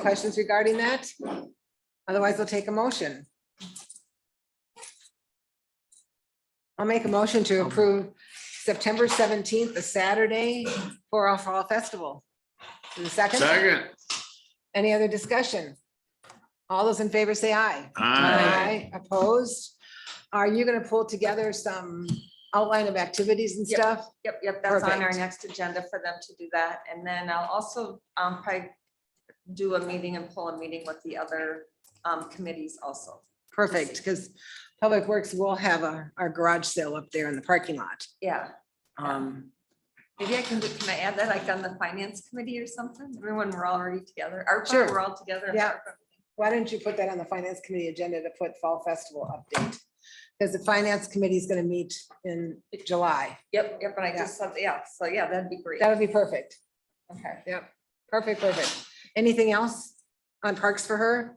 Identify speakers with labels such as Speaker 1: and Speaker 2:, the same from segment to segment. Speaker 1: Questions regarding that? Otherwise, I'll take a motion. I'll make a motion to approve September seventeenth, a Saturday for our Fall Festival. Is there a second,
Speaker 2: Second,
Speaker 1: any other discussion? All those in favor say aye.
Speaker 2: aye.
Speaker 1: Opposed? Are you gonna pull together some outline of activities and
Speaker 3: Yep.
Speaker 1: stuff?
Speaker 3: Yep, yep, that's on our
Speaker 1: Perfect.
Speaker 3: next agenda for them to do that. And then I'll also um, probably do a meeting and pull a meeting with the other um, committees also.
Speaker 1: Perfect, because Public Works will have our, our garage sale up there in the parking lot.
Speaker 3: Yeah,
Speaker 1: Um,
Speaker 3: maybe I can, do. can I add that like on the finance committee or something? Everyone, we're already together. Our,
Speaker 1: Sure.
Speaker 3: we're all together.
Speaker 1: Yeah. Why don't you put that on the finance committee agenda to put Fall Festival update? Because the finance committee is gonna meet in July.
Speaker 3: Yep, yep, and I
Speaker 1: Yeah.
Speaker 3: just said, yeah, so yeah, that'd be great.
Speaker 1: That would be perfect.
Speaker 3: Okay.
Speaker 1: Perfect, perfect. Anything else on parks for her?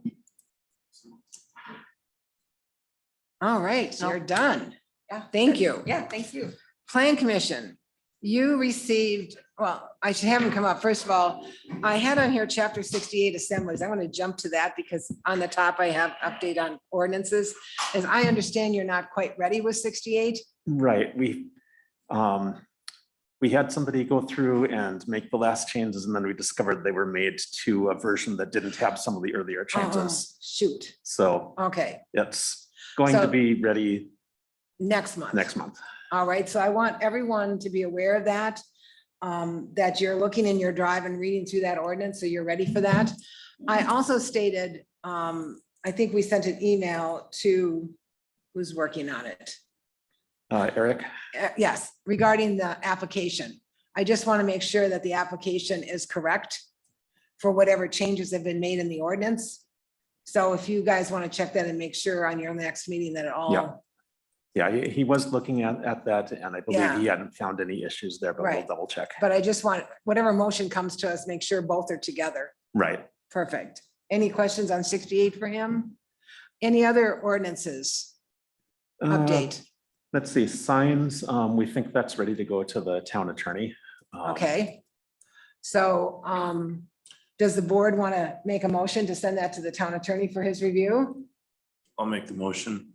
Speaker 1: All right,
Speaker 3: No.
Speaker 1: you're done.
Speaker 3: Yeah.
Speaker 1: Thank you.
Speaker 3: Yeah, thank you.
Speaker 1: Plan Commission, you received, well, I should have them come up. First of all, I had on here chapter sixty-eight assemblies. I want to jump to that because on the top I have update on ordinances. As I understand, you're not quite ready with sixty-eight.
Speaker 4: Right, we, um, we had somebody go through and make the last changes and then we discovered they were made to a version that didn't have some of the earlier
Speaker 1: Oh,
Speaker 4: changes.
Speaker 1: Shoot,
Speaker 4: So
Speaker 1: okay,
Speaker 4: it's going to
Speaker 1: So-
Speaker 4: be ready
Speaker 1: next month.
Speaker 4: next month.
Speaker 1: All right, so I want everyone to be aware of that. um, that you're looking in your drive and reading through that ordinance, so you're ready for that. I also stated, um, I think we sent an email to who's working on it.
Speaker 4: Uh, Eric,
Speaker 1: Uh, yes, regarding the application. I just want to make sure that the application is correct for whatever changes have been made in the ordinance. So if you guys want to check that and make sure on your next meeting that it
Speaker 4: Yeah.
Speaker 1: all,
Speaker 4: yeah, he, he was looking at, at that and I believe he hadn't found any issues there, but we'll
Speaker 1: Right.
Speaker 4: double check.
Speaker 1: but I just want, whatever motion comes to us, make sure both are together.
Speaker 4: Right,
Speaker 1: Perfect. Any questions on sixty-eight for him? Any other ordinances
Speaker 4: Uh,
Speaker 1: update?
Speaker 4: Let's see, signs, um, we think that's ready to go to the town attorney. Um,
Speaker 1: Okay. So um, does the board want to make a motion to send that to the town attorney for his review?
Speaker 5: I'll make the motion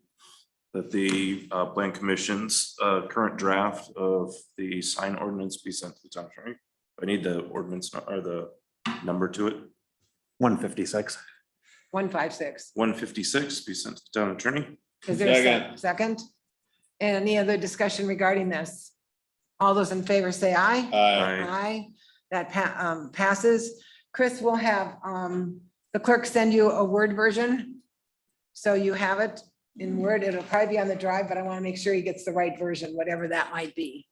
Speaker 5: that the uh, Plan Commission's uh, current draft of the sign ordinance be sent to the town attorney. I need the ordinance nu- or the number to it.
Speaker 4: One fifty-six.
Speaker 1: One five six.
Speaker 5: One fifty-six be sent to the town attorney.
Speaker 1: Is there a sec- second? Any other discussion regarding this? All those in favor say aye.
Speaker 5: Aye.
Speaker 1: Aye, that pa- um, passes. Chris will have, um, the clerk send you a Word version. So you have it in Word. It'll probably be on the drive, but I want to make sure he gets the right version, whatever that might be.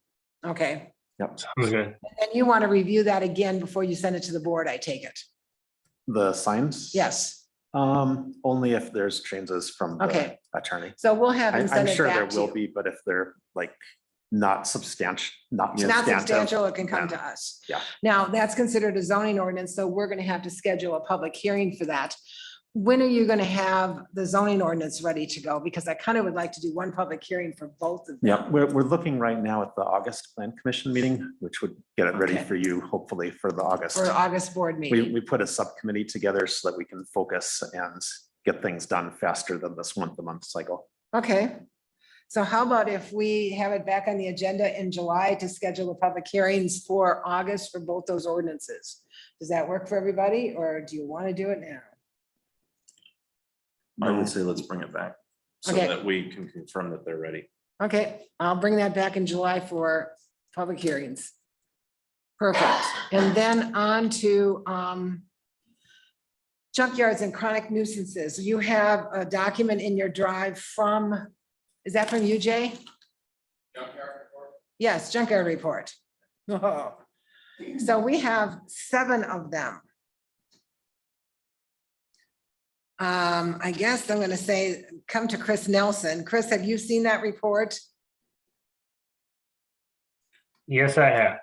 Speaker 1: Okay,
Speaker 4: Yep,
Speaker 1: and you want to review that again before you send it to the board, I take it.
Speaker 4: the signs.
Speaker 1: Yes,
Speaker 4: Um, only if there's changes from the
Speaker 1: Okay.
Speaker 4: attorney.
Speaker 1: so we'll have
Speaker 4: I-
Speaker 1: him
Speaker 4: I'm
Speaker 1: send it
Speaker 4: sure there
Speaker 1: back to
Speaker 4: will
Speaker 1: you.
Speaker 4: be, but if they're like not substantial, not
Speaker 1: It's not
Speaker 4: substantive.
Speaker 1: substantial, it can come to us.
Speaker 4: Yeah.
Speaker 1: Now, that's considered a zoning ordinance, so we're gonna have to schedule a public hearing for that. When are you gonna have the zoning ordinance ready to go? Because I kind of would like to do one public hearing for both of them.
Speaker 4: Yeah, we're, we're looking right now at the August Plan Commission meeting, which would get it ready
Speaker 1: Okay.
Speaker 4: for you, hopefully for the August.
Speaker 1: For August board
Speaker 4: We,
Speaker 1: meeting.
Speaker 4: we put a subcommittee together so that we can focus and get things done faster than this month, to month cycle.
Speaker 1: Okay. So how about if we have it back on the agenda in July to schedule the public hearings for August for both those ordinances? Does that work for everybody, or do you want to do it now?
Speaker 5: I would say let's bring it back so
Speaker 1: Okay.
Speaker 5: that we can confirm that they're ready.
Speaker 1: Okay, I'll bring that back in July for public hearings. Perfect. And then on to um, junkyards and chronic nuisances. You have a document in your drive from, is that from you, Jay? Yes, junkyard report. Oh. So we have seven of them. Um, I guess I'm gonna say, come to Chris Nelson. Chris, have you seen that report?
Speaker 6: Yes, I have.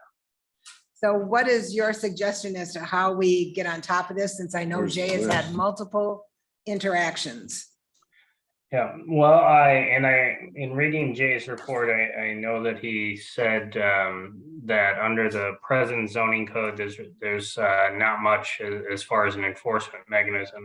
Speaker 1: So what is your suggestion as to how we get on top of this, since I know
Speaker 5: Where's-
Speaker 1: Jay has had
Speaker 5: where's-
Speaker 1: multiple interactions?
Speaker 6: Yeah, well, I, and I, in reading Jay's report, I, I know that he said, um, that under the present zoning code, there's, there's, uh, not much a- as far as an enforcement mechanism.